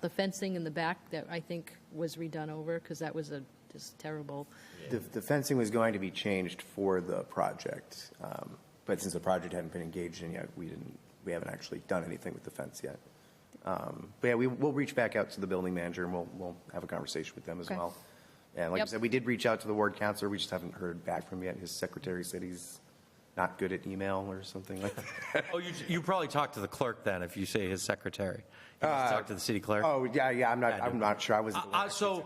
the fencing in the back that I think was redone over, because that was a, just terrible. The, the fencing was going to be changed for the project, um, but since the project hadn't been engaged in yet, we didn't, we haven't actually done anything with the fence yet. Um, But yeah, we, we'll reach back out to the building manager and we'll, we'll have a conversation with them as Okay. well. And like I Yep. said, we did reach out to the ward counselor, we just haven't heard back from him yet. His secretary said he's not good at email or something like that. Oh, you, you probably talked to the clerk then, if you say his secretary. You Uh, just talked to the city clerk. Oh, yeah, yeah, I'm not, Yeah, no. I'm not sure, I was. Uh, uh, so,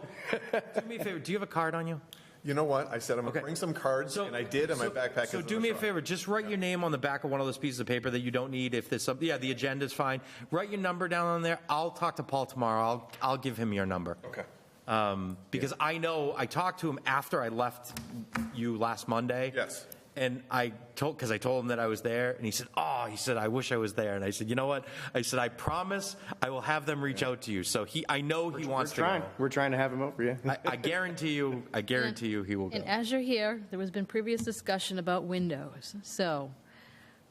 do me a favor, do you have a card on you? You know what? I said I'm Okay. gonna bring some cards, So- and I did, and my so- backpack. So is in do the me a truck. favor, just write your name on the back of one of those pieces of paper that you don't need if there's something, yeah, the agenda's fine. Write your number down on there. I'll talk to Paul tomorrow. I'll, I'll give him your number. Okay. Um, because I know, I talked to him after I left you last Monday. Yes. And I told, because I told him that I was there, and he said, "Oh," he said, "I wish I was there." And I said, "You know what?" I said, "I promise I will have them reach out to you." So he, I know he We're wants to trying, we're trying to have him over, yeah. go. I, I guarantee you, I guarantee you, he will go. And as you're here, there has been previous discussion about windows, so,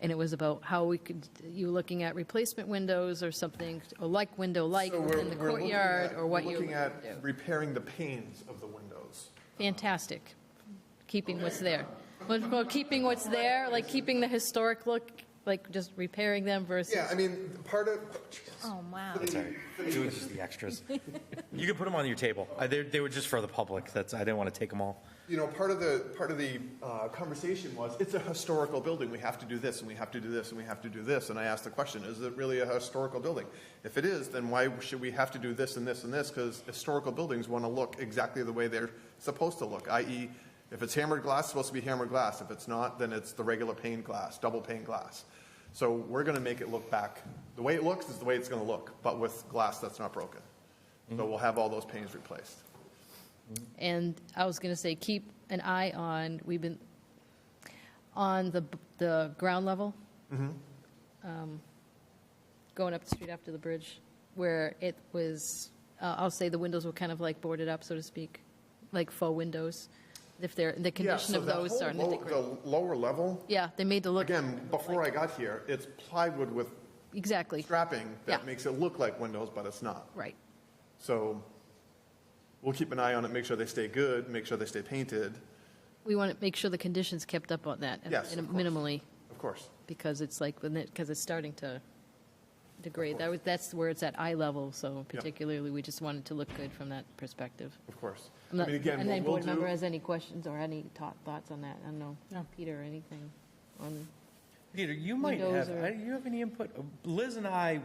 and it was about how we could, you looking at replacement windows or something, or like window-like So we're- in the we're looking courtyard, at- or what we're you Looking would at do. repairing the panes of the windows. Fantastic. Keeping what's there. Well, well, keeping what's there, like keeping the historic look, like just repairing them versus. Yeah, I mean, part of. Oh, wow. It was just the extras. You can put them on your table. Uh, They, they were just for the public. That's I didn't want to take them all. you know, part of the, part of the uh, conversation was, it's a historical building, we have to do this, and we have to do this, and we have to do this, and I asked the question, is it really a historical building? If it is, then why should we have to do this and this and this, because historical buildings want to look exactly the way they're supposed to look, i.e., if it's hammered glass, it's supposed to be hammered glass, if it's not, then it's the regular pane glass, double pane glass. So we're going to make it look back, the way it looks is the way it's going to look, but with glass that's not broken. So we'll have all those panes replaced. And I was going to say, keep an eye on, we've been, on the, the ground level. Mm-hmm. Um, Going up the street after the bridge, where it was, uh, I'll say the windows were kind of like boarded up, so to speak, like faux windows. If they're, the Yeah, condition so of that those whole are. low- The lower level, Yeah, they made the look. again, before I got here, it's plywood with Exactly, strapping that Yeah. makes it look like windows, but it's not. right. So we'll keep an eye on it, make sure they stay good, make sure they stay painted, We want to make sure the conditions kept up on that. and- Yes, and of course. Minimally, of course. because it's like, because it's starting to degrade. That was, that's where it's at eye level, so particularly, we just wanted to look good from that perspective. Of course. I'm I not- mean, again, And what then board we'll member do, has any questions or any thought, thoughts on that? I don't know, Peter, or anything on, Peter, you might Windows have. or- I- You have any input? Liz and I.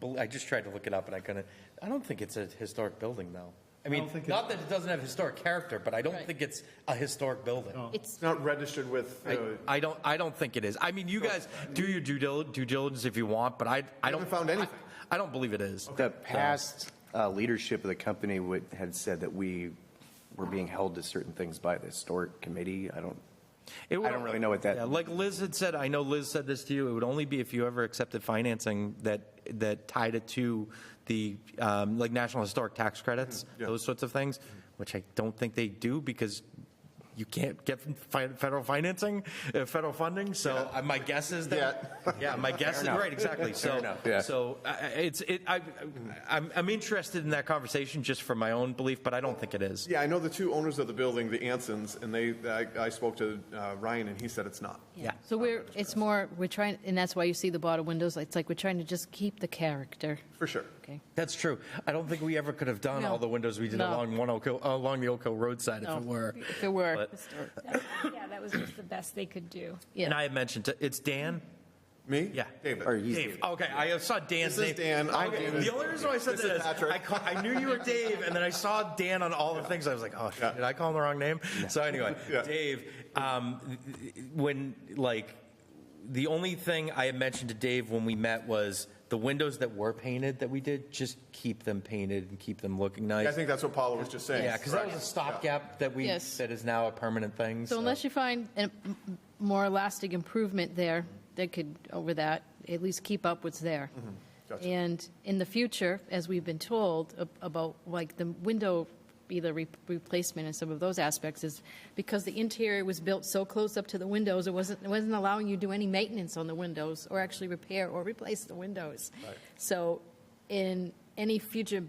b- I just tried to look it up, and I couldn't. I don't think it's a historic building, though. I mean, not that it doesn't have historic character, but I don't Right. think it's a historic building. it's, it's not registered with, uh, I, I don't. I don't think it is. I mean, you guys do your due, dil- due diligence if you want, but I. I don't haven't found I- anything. I, don't believe it is. The past uh, leadership of the company would, had said that we were being held to certain things by the historic committee. I don't, It would- I don't really know what that- Yeah, like Liz had said, I know Liz said this to you. It would only be if you ever accepted financing that that tied it to the um, like national historic tax credits, Mm-hmm, those sorts of things, which I don't think they do because you can't get fi- federal financing, uh, federal funding. So uh, my guess is that yeah, my guess is right exactly. So yeah. so I- I- it's it. I, I'm I'm interested in that conversation just for my own belief, but I don't think it is. yeah, I know the two owners of the building, the Ansons, and they, I, I spoke to uh, Ryan and he said it's not. Yeah. so we're, it's more, we're trying, and that's why you see the bottom windows, it's like we're trying to just keep the character, For sure. okay? That's true. I don't think we ever could have done No. all the windows we did No. along one Oak Hill, along the Oak Hill roadside if No, it were. If it were. But- Yeah, that was just the best they could do. And Yeah, I had mentioned to, it's Dan. Me? Yeah. David. or he's. Dave. Okay, I saw Dan's This name. is Dan. I'm Okay, David. The only reason why I said This that is is Patrick. I, ca- I knew you were Dave, and then I saw Dan on all the things. I was like, oh, shit, did I call him the wrong name? So anyway, Yeah. Dave, um, when like the only thing I had mentioned to Dave when we met was the windows that were painted that we did. Just keep them painted and keep them looking nice. I think that's what Paula was just saying. Yeah, because that was a Correct. stopgap that we, Yes. that is now a permanent thing. so unless you find a m- more elastic improvement there, that could, over that, at least keep up what's there. Gotcha. And in the future, as we've been told ab- about like the window, either re- replacement and some of those aspects is because the interior was built so close up to the windows, it wasn't, it wasn't allowing you to do any maintenance on the windows or actually repair or replace the windows. So in any future